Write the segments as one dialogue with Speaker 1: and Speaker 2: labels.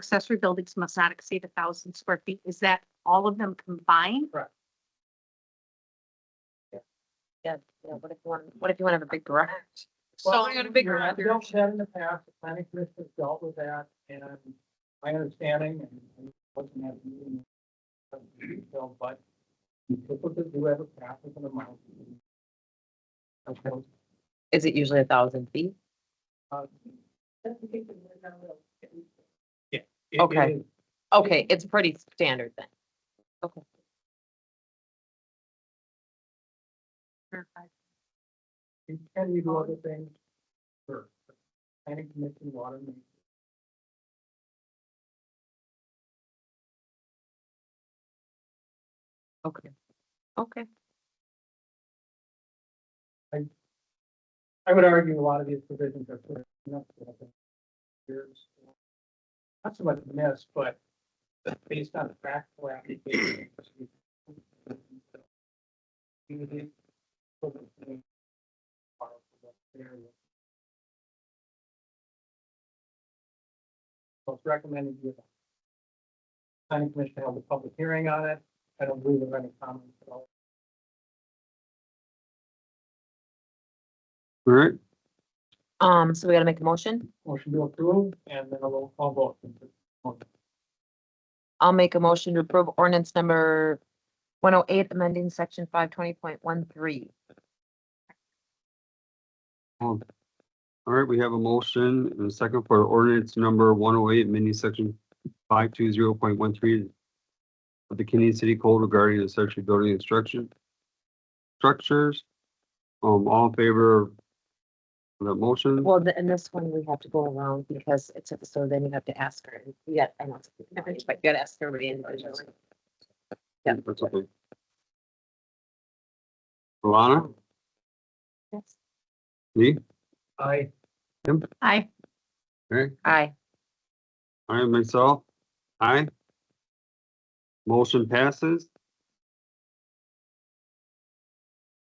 Speaker 1: accessory buildings must not exceed a thousand square feet. Is that all of them combined?
Speaker 2: Yeah, yeah, what if you want, what if you want to have a big garage?
Speaker 1: So you got a big
Speaker 3: Your
Speaker 1: garage.
Speaker 3: Adults had in the past, the planning commission has dealt with that, and my understanding, and and wasn't at the meeting. but the detail, But you typically do have a path with an amount. Of course,
Speaker 2: Is it usually a thousand feet?
Speaker 3: uh, it- it
Speaker 2: Okay.
Speaker 3: is-
Speaker 2: Okay, it's pretty standard then.
Speaker 3: You can you do other things? Sure. Planning commission, water. main.
Speaker 2: Okay. Okay,
Speaker 3: I would argue a lot of these provisions are pretty enough. Years. Not so much missed, but based on the practical application. Most recommended. you- Planning commission held a public hearing on it. I don't believe there are any comments at all.
Speaker 4: All right,
Speaker 2: um, so we gotta make a motion.
Speaker 3: Motion to approve and then a roll call vote.
Speaker 2: I'll make a motion to approve ordinance number one oh eight, amending section five twenty point one three.
Speaker 4: all right, we have a motion and a second for ordinance number one oh eight, mini section five two zero point one three of the Canadian City Code regarding accessory building instruction structures. Um, all in favor of the motion?
Speaker 2: Well, the- and this one we have to go around because it's, so then you have to ask her, you got, I know, it's a bit, but you gotta ask everybody individually. yeah.
Speaker 4: That's okay. Alana,
Speaker 2: Yes.
Speaker 4: Lee,
Speaker 3: I,
Speaker 1: I,
Speaker 4: Mary,
Speaker 2: Aye.
Speaker 4: I myself, aye. Motion passes.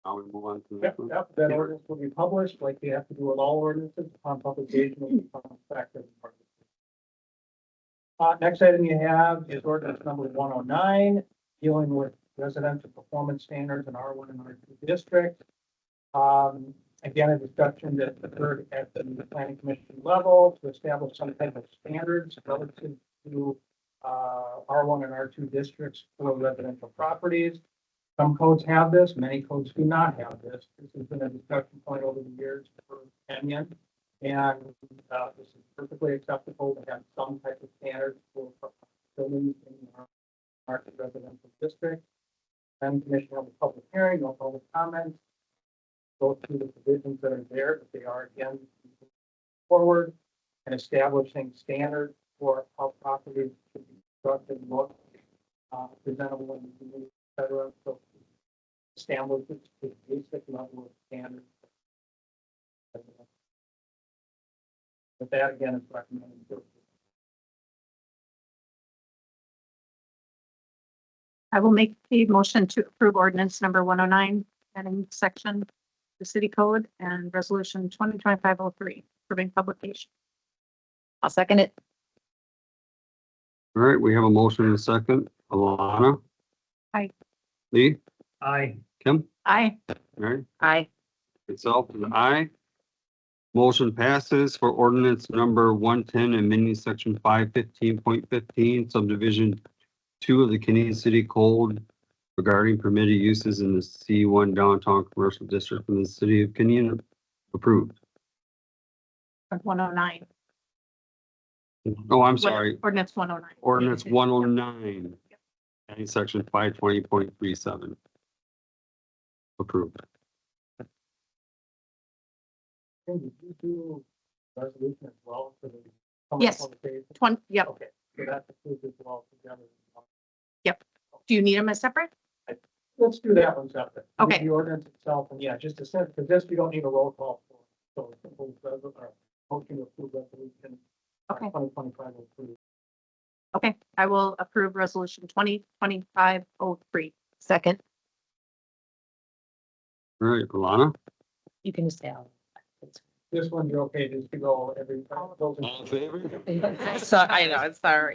Speaker 4: Now we move on to the
Speaker 3: yep,
Speaker 4: next one.
Speaker 3: yep, that ordinance will be published, like we have to do with all ordinances upon publication will become effective. Uh, next item you have is ordinance number one oh nine, dealing with residential performance standards in R one and R two districts. Um, again, a discussion that occurred at the planning commission level to establish some type of standards relative to uh, R one and R two districts for residential properties. Some codes have this, many codes do not have this. This has been a discussion point over the years for Kenyon. And, uh, this is perfectly acceptable to have some type of standards for buildings in our, our residential district. Then commission held a public hearing, no public comments. Go through the provisions that are there, but they are again forward and establishing standards for how properties should be constructed, look, uh, presentable in the community et cetera, so establish the the basic level of standard. But that again is recommended.
Speaker 1: I will make a motion to approve ordinance number one oh nine, adding section to the city code and resolution twenty twenty-five oh three, approving publication.
Speaker 2: I'll second it.
Speaker 4: All right, we have a motion and a second. Alana?
Speaker 1: Aye.
Speaker 4: Lee,
Speaker 3: Aye.
Speaker 4: Kim,
Speaker 1: I,
Speaker 4: Mary,
Speaker 2: Aye.
Speaker 4: itself is aye. Motion passes for ordinance number one ten and mini section five fifteen point fifteen subdivision two of the Canadian City Code regarding permitted uses in the C one downtown commercial district in the city of Canadian approved.
Speaker 1: one oh nine.
Speaker 4: Oh, I'm sorry,
Speaker 1: Ordinance one oh nine.
Speaker 4: ordinance one oh nine, adding section five twenty point three seven. Approved.
Speaker 3: Did you do resolution as well for the? public
Speaker 1: Yes.
Speaker 3: consultation?
Speaker 1: Twenty, yep.
Speaker 3: Okay, so that's approved as well together.
Speaker 1: Do you need them as separate?
Speaker 3: Let's do that one separate. Do
Speaker 1: Okay.
Speaker 3: The ordinance itself, and yeah, just a sense, because this, we don't need a roll call for, so simple, res- or motion to approve resolution.
Speaker 1: Okay.
Speaker 3: Twenty twenty-five oh approved.
Speaker 1: Okay, I will approve resolution twenty twenty-five oh three.
Speaker 2: Second,
Speaker 4: All right, Alana?
Speaker 2: you can just say. aye.
Speaker 5: this one, you're okay just to go every.
Speaker 3: All in favor?
Speaker 2: So I know, I'm sorry.